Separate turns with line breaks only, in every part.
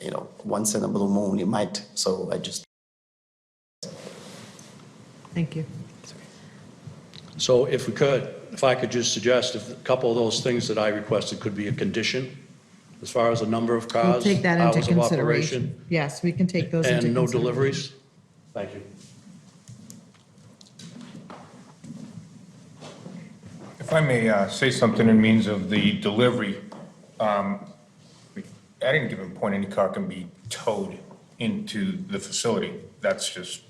you know, once in a blue moon, you might, so I just.
Thank you.
So if we could, if I could just suggest, if a couple of those things that I requested could be a condition, as far as the number of
We'll
cars,
take that into
Uh, hours of operation,
consideration. Yes, we can take those into
and no
consideration.
deliveries? Thank you.
If I may uh, say something in means of the delivery, um, at any given point, any car can be towed into the facility. That's just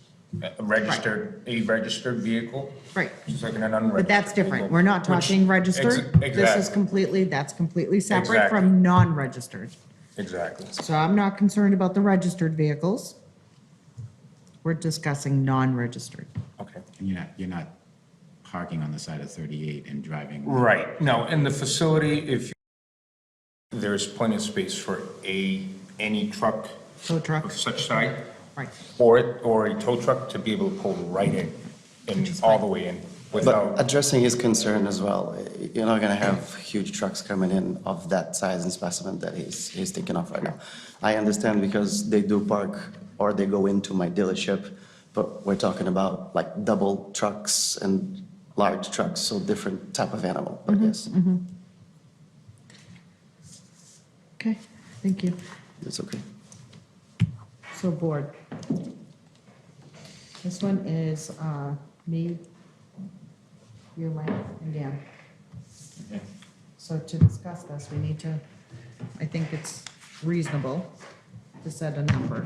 a registered, a registered vehicle.
Right.
Just like an unregistered.
But that's different.
vehicle,
We're not
which-
talking registered.
Ex-
This is
Exactly,
completely, that's completely separate
Exactly.
from non-registered.
exactly.
So I'm not concerned about the registered vehicles. We're discussing non-registered.
Okay.
And you're not, you're not parking on the side of 38 and driving.
Right. No, in the facility, if you- there's plenty of space for a, any truck
Tow truck,
of such size
right.
for it, or a tow truck to be able to pull right in and all the way in without.
But addressing his concern as well, eh, you're not gonna have huge trucks coming in of that size and specimen that he's, he's taking off right now. I understand because they do park or they go into my dealership, but we're talking about like double trucks and large trucks, so different type of animal, but yes,
Okay, thank you.
it's okay.
So board. This one is uh, me, you, Mike, and Dan. So to discuss this, we need to, I think it's reasonable to set a number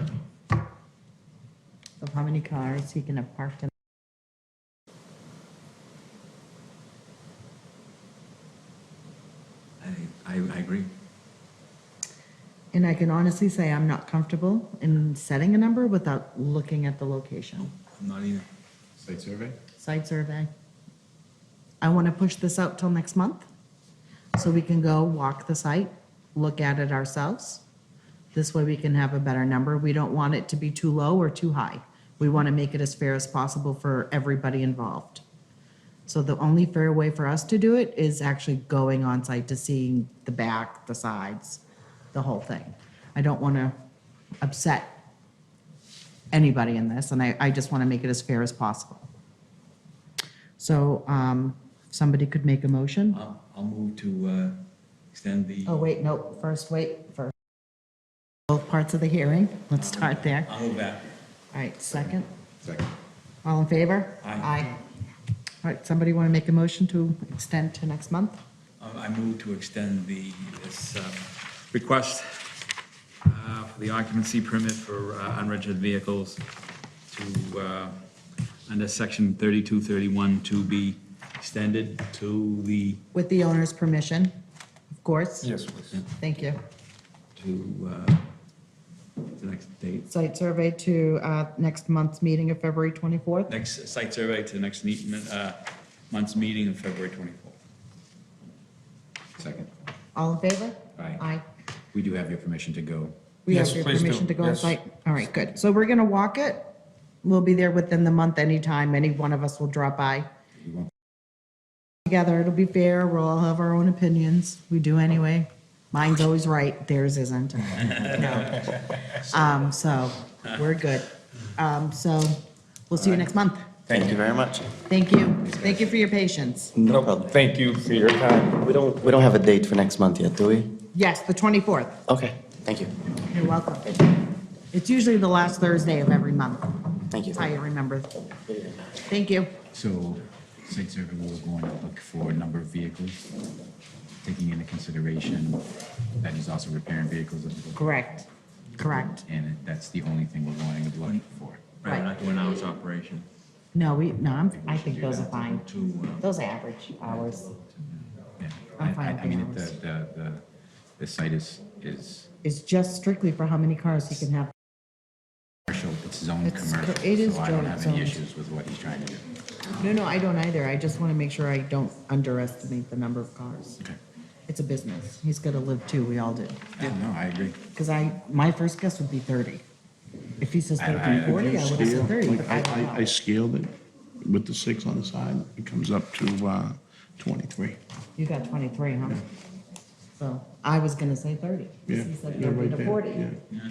of how many cars he can have parked in.
I, I, I agree.
And I can honestly say I'm not comfortable in setting a number without looking at the location.
I'm not either.
Site survey?
site survey. I want to push this out till next month, so we can go walk the site, look at it ourselves. This way we can have a better number. We don't want it to be too low or too high. We want to make it as fair as possible for everybody involved. So the only fair way for us to do it is actually going on site to seeing the back, the sides, the whole thing. I don't want to upset anybody in this, and I, I just want to make it as fair as possible. So um, somebody could make a motion?
I'll, I'll move to uh, extend the.
Oh, wait, no, first, wait, first. Both parts of the hearing, let's start there.
I'll move that.
All right, second,
Second.
all in favor?
Aye.
All right, somebody want to make a motion to extend to next month?
I I move to extend the, this uh, request uh, for the occupancy permit for uh, unregistered vehicles to, uh, under section 3231, to be extended to the,
With the owner's permission, of course?
Yes, please.
Thank you.
to uh, the next date,
Site survey to uh, next month's meeting of February 24th?
next site survey to the next meet- uh, month's meeting of February 24th.
Second.
All in favor?
Aye.
Aye.
We do have your permission to go.
We have
Yes,
your
please do.
permission to go on
Yes.
site? All right, good. So we're gonna walk it. We'll be there within the month anytime. Any one of us will drop by. Together, it'll be fair. We'll all have our own opinions. We do anyway. Mine's always right, theirs isn't. No. Um, so we're good. Um, so we'll see you next month.
Thank you very much.
Thank you. Thank you for your patience.
No problem.
Thank you for your time.
We don't, we don't have a date for next month yet, do we?
Yes, the twenty-fourth.
Okay, thank you.
You're welcome. It's usually the last Thursday of every month.
Thank you.
That's how you remember. Thank you.
So site survey will go and look for number of vehicles, taking into consideration that he's also repairing vehicles. of the-
Correct, correct.
And that's the only thing we're going to look for.
Right.
Right, not to an hour's operation.
No, we, no, I'm, I think those are fine.
To, uh,
Those are average hours.
Yeah.
I'm
I-
fine
I-
with
I mean,
the
the,
hours.
the, the, the site is, is
It's just strictly for how many cars you can have.
commercial, it's zoned
It's co-
commercial.
it is
So I don't have
zoned.
any issues with what he's trying to do.
No, no, I don't either. I just want to make sure I don't underestimate the number of cars.
Okay.
It's a business. He's got to live too, we all do.
Yeah, no, I agree.
Because I, my first guess would be thirty. If he says
I- I-
thirty,
if
forty,
you
I would have
scale-
said thirty,
like,
but
I-
I don't
I- I
know.
scaled it with the six on the side, it comes up to uh, 23.
You got twenty-three, huh? So I was gonna say thirty.
Yeah,
He said
yeah,
thirty
right
to
there,
forty.
yeah.